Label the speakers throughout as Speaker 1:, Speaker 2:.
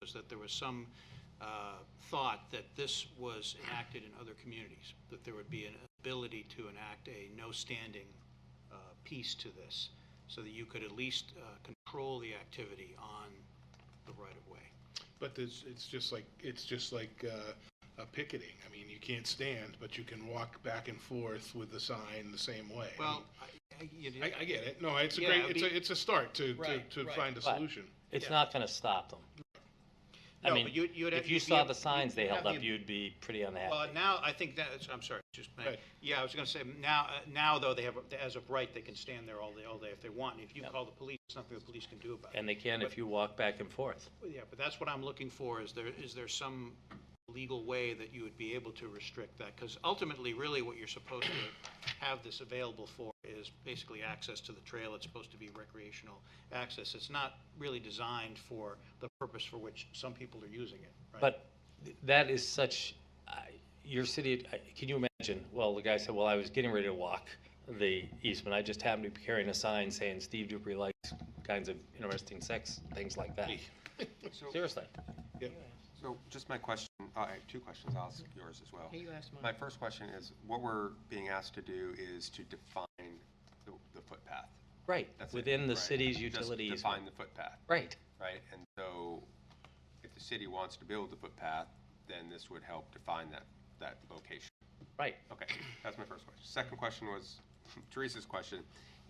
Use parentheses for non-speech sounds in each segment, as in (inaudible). Speaker 1: was that there was some uh, thought that this was enacted in other communities, that there would be an ability to enact a no-standing uh, piece to this, so that you could at least uh, control the activity on the right-of-way.
Speaker 2: But it's, it's just like, it's just like uh, a picketing. I mean, you can't stand, but you can walk back and forth with the sign the same way. I
Speaker 1: Well,
Speaker 2: mean,
Speaker 1: I- I- you
Speaker 2: I, I get it. No, it's a
Speaker 1: Yeah,
Speaker 2: great,
Speaker 1: it'd
Speaker 2: it's
Speaker 1: be-
Speaker 2: a, it's a start to, to,
Speaker 1: Right,
Speaker 2: to
Speaker 1: right.
Speaker 2: find a
Speaker 3: But-
Speaker 2: solution.
Speaker 3: It's not gonna stop them. I
Speaker 1: No,
Speaker 3: mean,
Speaker 1: but you- you'd have-
Speaker 3: if you
Speaker 1: you'd be
Speaker 3: saw
Speaker 1: ab-
Speaker 3: the signs they
Speaker 1: you'd have
Speaker 3: held
Speaker 1: the
Speaker 3: up,
Speaker 1: ab-
Speaker 3: you'd be pretty
Speaker 1: Well,
Speaker 3: unhappy.
Speaker 1: now, I think that's, I'm sorry, just, a minute.
Speaker 2: Right.
Speaker 1: yeah, I was gonna say, now, uh, now, though, they have, as of right, they can stand there all day, all day if they want. If you call the police, there's nothing the police can do about it.
Speaker 3: And they can if you walk back and forth.
Speaker 1: Yeah, but that's what I'm looking for, is there, is there some legal way that you would be able to restrict that? Because ultimately, really, what you're supposed to have this available for is basically access to the trail. It's supposed to be recreational access. It's not really designed for the purpose for which some people are using it, right?
Speaker 3: But th- that is such, I- your city, I- can you imagine? Well, the guy said, well, I was getting ready to walk the Eastman. I just happened to be carrying a sign saying Steve Dupree likes kinds of interesting sex, things like
Speaker 1: (laughs)
Speaker 3: that.
Speaker 4: So,
Speaker 3: Seriously.
Speaker 4: so just my question, uh, I have two questions, I'll ask yours as well.
Speaker 5: You asked
Speaker 4: My
Speaker 5: mine.
Speaker 4: first question is, what we're being asked to do is to define the the footpath.
Speaker 3: Right,
Speaker 4: That's it,
Speaker 3: within the
Speaker 4: right?
Speaker 3: city's
Speaker 4: Just
Speaker 3: utility easement.
Speaker 4: Define the footpath,
Speaker 3: Right,
Speaker 4: right? And so if the city wants to build the footpath, then this would help define that, that location.
Speaker 3: right.
Speaker 4: Okay, that's my first question. Second question was (laughs) Teresa's question.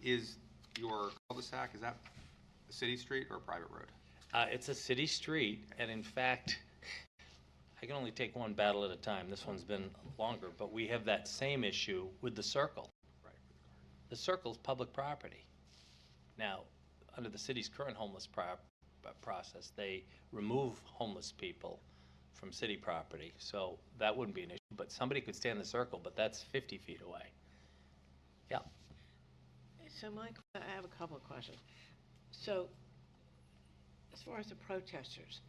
Speaker 4: Is your cul-de-sac, is that a city street or a private road?
Speaker 3: Uh, it's a city street, and in fact, I can only take one battle at a time. This one's been longer, but we have that same issue with the circle.
Speaker 4: Right.
Speaker 3: The circle's public property. Now, under the city's current homeless pro- uh, process, they remove homeless people from city property, so that wouldn't be an issue. But somebody could stay in the circle, but that's 50 feet away. Yeah,
Speaker 5: So Mike, I have a couple of questions. So, as far as the protesters,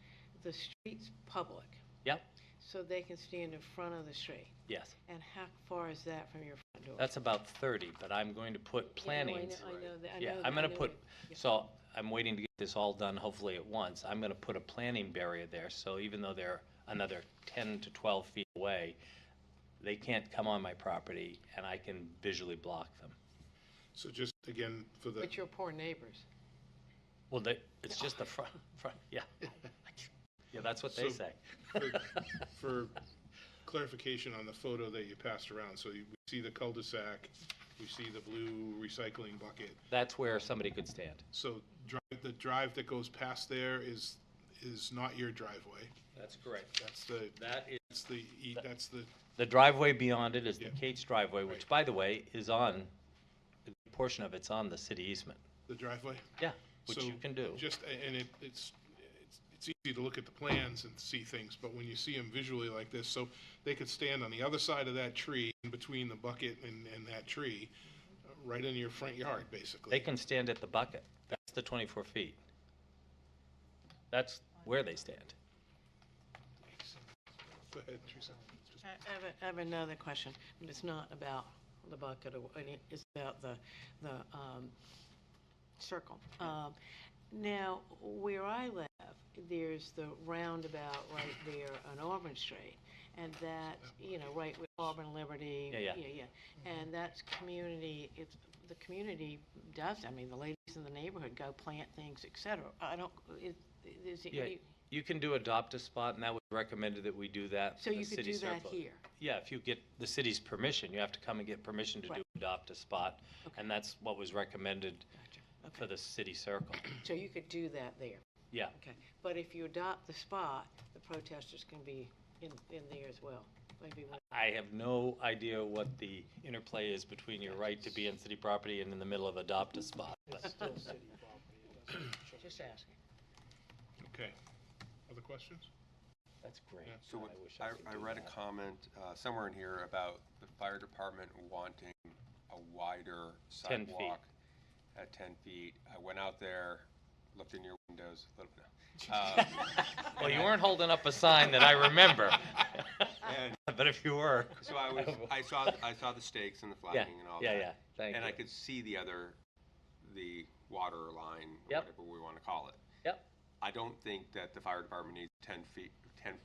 Speaker 5: the street's public,
Speaker 3: yep,
Speaker 5: so they can stand in front of the street.
Speaker 3: yes.
Speaker 5: And how far is that from your front door?
Speaker 3: That's about 30, but I'm going to put
Speaker 5: You know, I know-
Speaker 3: plantings.
Speaker 5: I know that- I
Speaker 3: Yeah,
Speaker 5: know that-
Speaker 3: I'm
Speaker 5: I
Speaker 3: gonna
Speaker 5: know
Speaker 3: put,
Speaker 5: that. Yeah.
Speaker 3: so I'm waiting to get this all done hopefully at once. I'm gonna put a planting barrier there, so even though they're another ten to twelve feet away, they can't come on my property and I can visually block them.
Speaker 2: So just again, for the,
Speaker 5: But your poor neighbors.
Speaker 3: Well, they, it's (laughs) just the front, front, yeah. Yeah, that's what they
Speaker 2: So-
Speaker 3: say.
Speaker 2: for- for clarification on the photo that you passed around, so you we see the cul-de-sac, we see the blue recycling bucket.
Speaker 3: (laughs) That's where somebody could stand.
Speaker 2: So drive, the drive that goes past there is, is not your driveway.
Speaker 3: That's correct.
Speaker 2: That's the,
Speaker 3: That is.
Speaker 2: that's the, e- that's the
Speaker 3: The driveway beyond it is the
Speaker 2: Yeah.
Speaker 3: Kate's driveway, which by the way, is on, a portion of it's on the city easement.
Speaker 2: The driveway?
Speaker 3: Yeah, which
Speaker 2: So
Speaker 3: you can do.
Speaker 2: Just, and it, it's, it's- it's easy to look at the plans and see things, but when you see them visually like this, so they could stand on the other side of that tree, in between the bucket and, and that tree, uh, right in your front yard,
Speaker 3: They
Speaker 2: basically.
Speaker 3: can stand at the bucket. That's the 24 feet. That's where they stand.
Speaker 2: Go ahead, Teresa.
Speaker 5: I I have, a- I have another question, and it's not about the bucket or, what- it's about the, the, um, circle. Um, now, where I live, there's the roundabout right there on Auburn Street, and that, you know, right with Auburn Liberty.
Speaker 3: Yeah, Mm-hmm. yeah.
Speaker 5: Yeah, yeah, and that's community, it's, the community does, I mean, the ladies in the neighborhood go plant things, et cetera. I don't, it, is it-
Speaker 3: Yeah, You can do adopt a spot, and that was recommended that we do that. for
Speaker 5: so
Speaker 3: the
Speaker 5: you could
Speaker 3: city
Speaker 5: do that
Speaker 3: surplus.
Speaker 5: here?
Speaker 3: Yeah, if you get the city's permission, you have to come and get permission to do
Speaker 5: Right.
Speaker 3: adopt a spot.
Speaker 5: Okay.
Speaker 3: And that's what was recommended
Speaker 5: Gotcha.
Speaker 3: for
Speaker 5: Okay,
Speaker 3: the city circle. (clears throat)
Speaker 5: so you could do that there?
Speaker 3: Yeah,
Speaker 5: Okay, but if you adopt the spot, the protesters can be in, in there as well, maybe one.
Speaker 3: I have no idea what the interplay is between your right to be in city property and in the middle of adopt a spot. But
Speaker 5: Just asking.
Speaker 2: Okay. Other questions?
Speaker 3: that's great.
Speaker 4: So what-
Speaker 3: I wish
Speaker 4: I,
Speaker 3: could
Speaker 4: I
Speaker 3: do
Speaker 4: read a
Speaker 3: that.
Speaker 4: comment uh, somewhere in here about the fire department wanting a wider
Speaker 3: 10 feet.
Speaker 4: sidewalk at 10 feet. I went out there, looked in your windows, a
Speaker 3: (laughs)
Speaker 4: little bit. Uh,
Speaker 3: Well, you weren't holding up a sign that I
Speaker 4: (laughs)
Speaker 3: remember.
Speaker 4: And
Speaker 3: (laughs) But if you were.
Speaker 4: so I was, I saw, I saw the stakes and the
Speaker 3: Yeah,
Speaker 4: flagging and all that.
Speaker 3: yeah, yeah, thank
Speaker 4: And I
Speaker 3: you.
Speaker 4: could see the other, the water line, or
Speaker 3: Yep.
Speaker 4: whatever we want to call it.
Speaker 3: Yep.
Speaker 4: I don't think that the fire department needs ten feet, ten